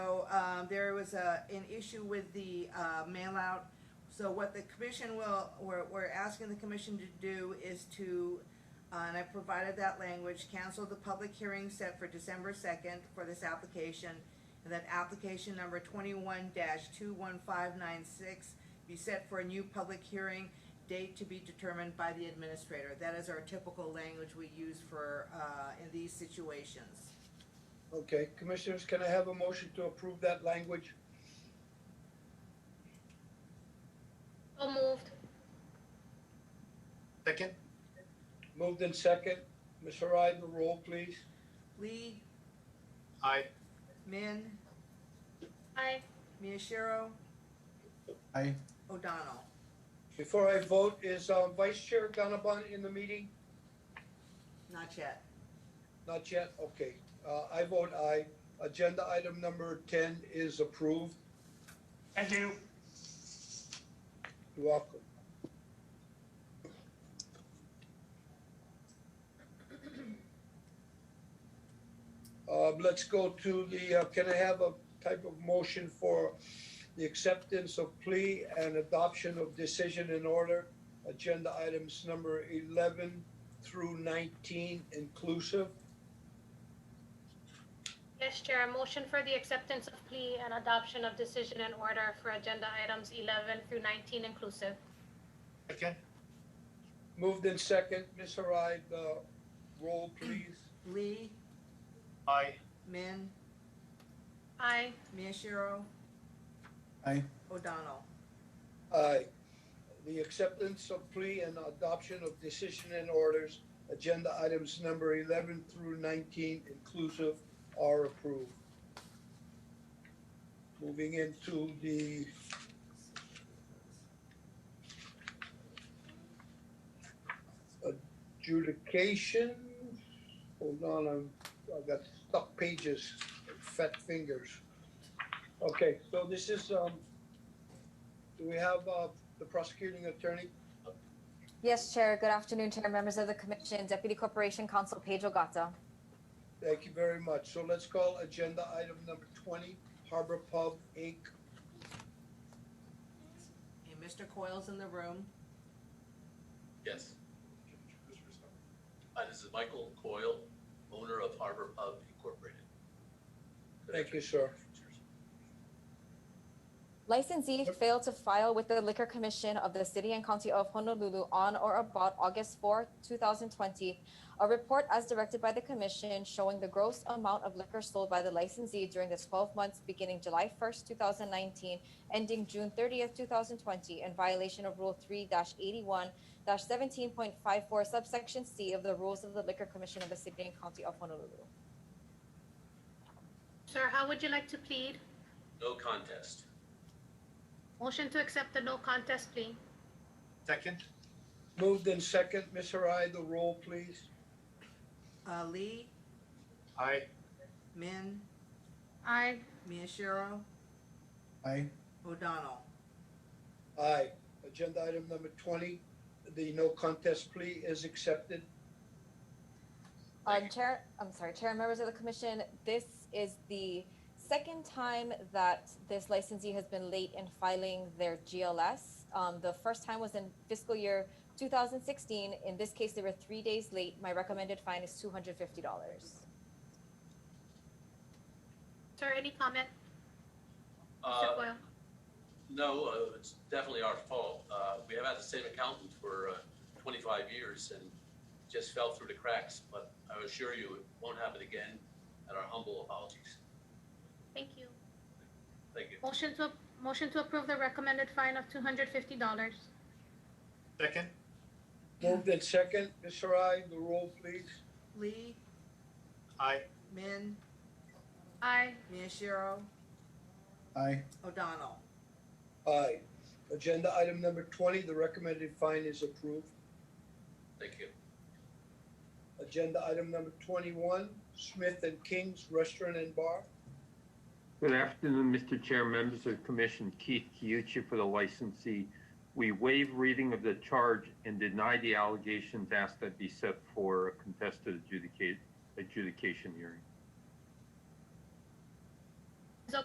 Um, there was a, an issue with the, uh, mail out. So what the commission will, we're, we're asking the commission to do is to, uh, and I provided that language, cancel the public hearing set for December second for this application. And that application number twenty-one two one five nine six be set for a new public hearing, date to be determined by the administrator. That is our typical language we use for, uh, in these situations. Okay, commissioners, can I have a motion to approve that language? So moved. Second? Moved in second. Ms. Harai, the roll, please. Lee, Aye. Min, Aye. Miyashiro, Aye. O'Donnell. Before I vote, is um, Vice Chair Gannabon in the meeting? Not yet. Not yet, okay. Uh, I vote aye. Agenda item number ten is approved. Thank you. You're welcome. Uh, let's go to the, uh, can I have a type of motion for the acceptance of plea and adoption of decision in order? Agenda items number eleven through nineteen inclusive. Yes, Chair, a motion for the acceptance of plea and adoption of decision and order for agenda items 11 through 19 inclusive. Second? Moved in second, Ms. Harai, the roll please. Lee, Aye. Min, Aye. Miyashiro. Aye. O'Donnell. Aye. uh, The acceptance of plea and adoption of decision and orders, agenda items number eleven through nineteen inclusive are approved. Moving into the, adjudication. Hold on, I'm, I've got stuck pages, fat fingers. Okay, so this is, um, do we have, uh, the prosecuting attorney? Yes, Chair. Good afternoon, Chair, members of the Commission, Deputy Corporation Counsel Pedro Gata. Thank you very much. So let's call agenda item number twenty, Harbor Pub Inc. And Mr. Coyle's in the room. Yes. Hi, this is Michael Coyle, owner of Harbor Pub Incorporated. Good Thank you, sir. afternoon. Cheers. Licensee failed to file with the Liquor Commission of the City and County of Honolulu on or about August 4, 2020, a report as directed by the Commission showing the gross amount of liquor sold by the licensee during the 12 months beginning July 1, 2019, ending June 30, 2020, in violation of Rule 3-81-17.54 subsection C of the Rules of the Liquor Commission of the City and County of Honolulu. Sir, how would you like to plead? No contest. Motion to accept the no contest plea. Second? Moved in second, Ms. Harai, the roll, please. Uh, Lee, Aye. Min, Aye. Miyashiro, Aye. O'Donnell. Aye. Agenda item number twenty, the no contest plea is accepted. Thank Um, you. Chair, I'm sorry, Chair and members of the commission, this is the second time that this licensee has been late in filing their GLS. Um, the first time was in fiscal year two thousand sixteen. In this case, they were three days late. My recommended fine is two hundred fifty dollars. Sir, any comment? Mr. Uh, Coyle? no, uh, it's definitely our fault. Uh, we have had the same accountant for, uh, twenty-five years and just fell through the cracks, but I assure you, it won't happen again, and our humble apologies. Thank you. Thank you. Motion to, motion to approve the recommended fine of $250. Second? Moved in second, Ms. Harai, the roll, please. Lee, Aye. Min, Aye. Miyashiro, Aye. O'Donnell. Aye. Agenda item number twenty, the recommended fine is approved. Thank you. Agenda item number twenty-one, Smith and King's Restaurant and Bar. Good afternoon, Mr. Chair, members of the commission. Keith Kiuchi for the licensee. We waive reading of the charge and deny the allegations asked that be set for a contested adjudicate, adjudication hearing.